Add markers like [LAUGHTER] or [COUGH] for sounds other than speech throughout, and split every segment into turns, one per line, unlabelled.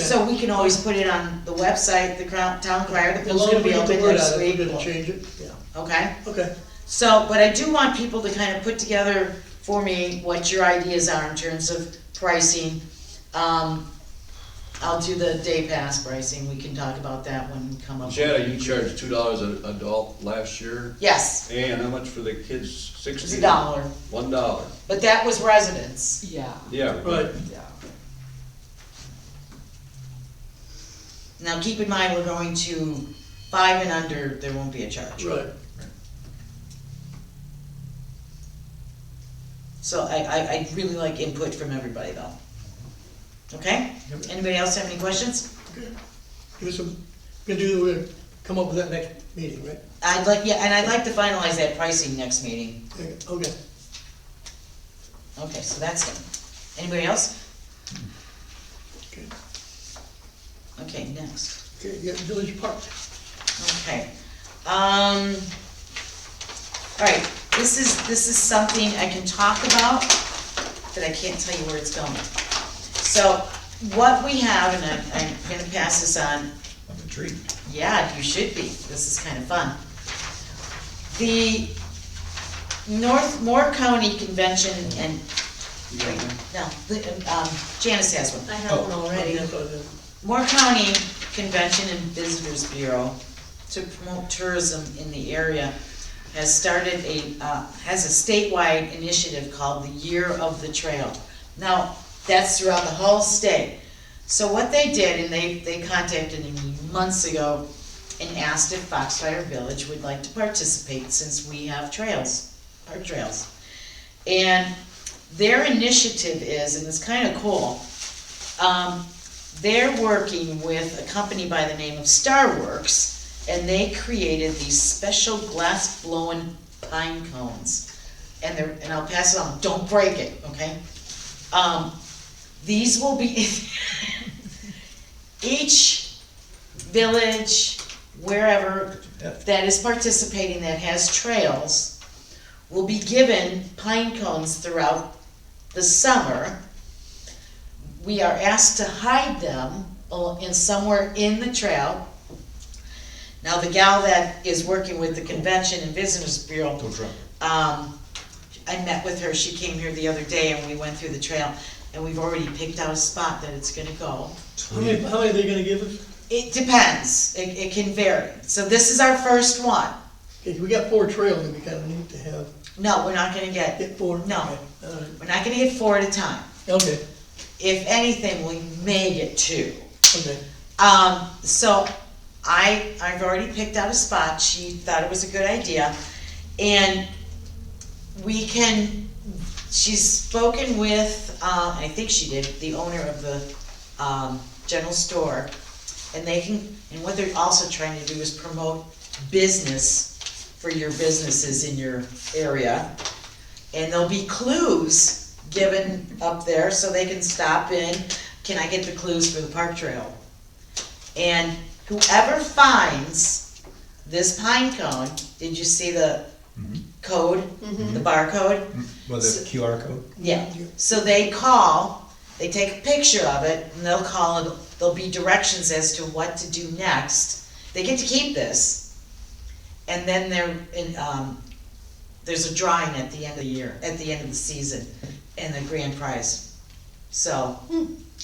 So we can always put it on the website, the crown, town crier, the
As
pool's
long
gonna
as we
be
get the
open
word
next
out, we're
week.
gonna change it, yeah,
Okay,
okay.
so, but I do want people to kind of put together for me what your ideas are in terms of pricing. Um, I'll do the day pass pricing, we can talk about that when we come up. with-
Jada, you charged two dollars an adult last year,
Yes,
and how much for the kids,
it
sixteen?
was a dollar,
One dollar,
but that was residents.
Yeah,
yeah.
Right,
yeah.
Now, keep in mind, we're going to five and under, there won't be a charge.
right.
So I, I, i really like input from everybody though. Okay?
Yep.
Anybody else have any questions?
Give us some, we're gonna do, we're gonna come up with that next meeting, right?
I'd like, yeah, and I'd like to finalize that pricing next meeting.
Okay, Okay,
Okay, so that's done. Anybody else?
okay,
Okay, next.
okay, yeah, Village Park,
Okay. Um, all right, this is, this is something I can talk about, but I can't tell you where it's going. So what we have, and I'm, I'm gonna pass this on
I'm intrigued.
Yeah, you should be. This is kind of fun. The North Moore County Convention and,
You got Oh, that?
no, the, um, Janice has one.
I have one already.
Yeah, so, yeah.
Moore County Convention and Visitors Bureau to promote tourism in the area has started a, uh, has a statewide initiative called the Year of the Trail. Now, that's throughout the whole state. So what they did, and they, they contacted me months ago and asked if Foxfire Village would like to participate since we have trails, our trails. And their initiative is, and it's kinda cool, um, they're working with a company by the name of Starworks, and they created these special glass blown pine cones. And they're, and I'll pass it on, don't break it, okay? Um, these will be, [LAUGHS] each village, wherever, that is participating that has trails will be given pine cones throughout the summer. We are asked to hide them al- in somewhere in the trail. Now, the gal that is working with the Convention and Visitors Bureau, um, I met with her, she came here the other day and we went through the trail and we've already picked out a spot that it's gonna go.
How many, how many are they gonna give us?
It depends, it, it can vary. So this is our first one.
Okay, we got four trails that we kinda need to have,
No, we're not gonna get,
get four.
No.
Okay, all right.
we're not gonna get four at a time.
Okay,
If anything, we may get two.
okay,
Um, so I, I've already picked out a spot, she thought it was a good idea, and we can, she's spoken with, uh, I think she did, the owner of the, um, general store, and they can, and what they're also trying to do is promote business for your businesses in your area. And there'll be clues given up there, so they can stop in, can I get the clues for the park trail? And whoever finds this pine cone, did you see the
Mhm.
code, the barcode?
Well, the QR code?
Yeah, so they call, they take a picture of it, and they'll call, and there'll be directions as to what to do next. They get to keep this. And then there, and, um, there's a drawing at the end of the year, at the end of the season, and the grand prize. So,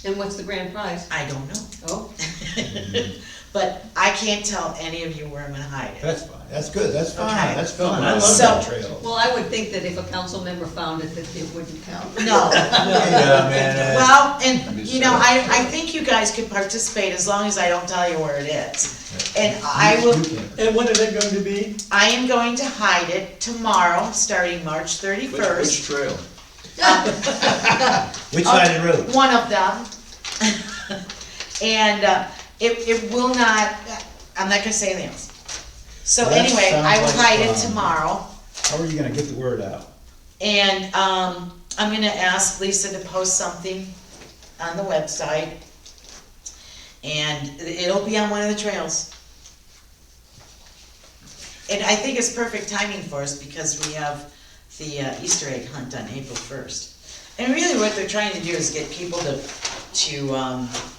And what's the grand prize?
I don't know.
Oh,
[LAUGHS] But I can't tell any of you where I'm gonna hide
[LAUGHS]
it.
That's fine, that's good, that's
Alright.
fun, that's fun, I love
So-
that trail.
well, I would think that if a council member found it, that it wouldn't count. [LAUGHS]
No,
Yeah, man, uh,
well, and, you know, I, I think you guys could participate as long as I don't tell you where it is. And I
you-
will,
you can.
and when are they going to be?
I am going to hide it tomorrow, starting March
Which, which
thirty-first.
trail?
Which side of the road?
One of them. And, uh, it, it will not, I'm not gonna say anything else. So
Well, that
anyway, I will
sounds like
hide it
fun.
tomorrow.
How are you gonna get the word out?
And, um, I'm gonna ask Lisa to post something on the website. And it'll be on one of the trails. And I think it's perfect timing for us because we have the uh, Easter egg hunt on April first. And really what they're trying to do is get people to, to, um,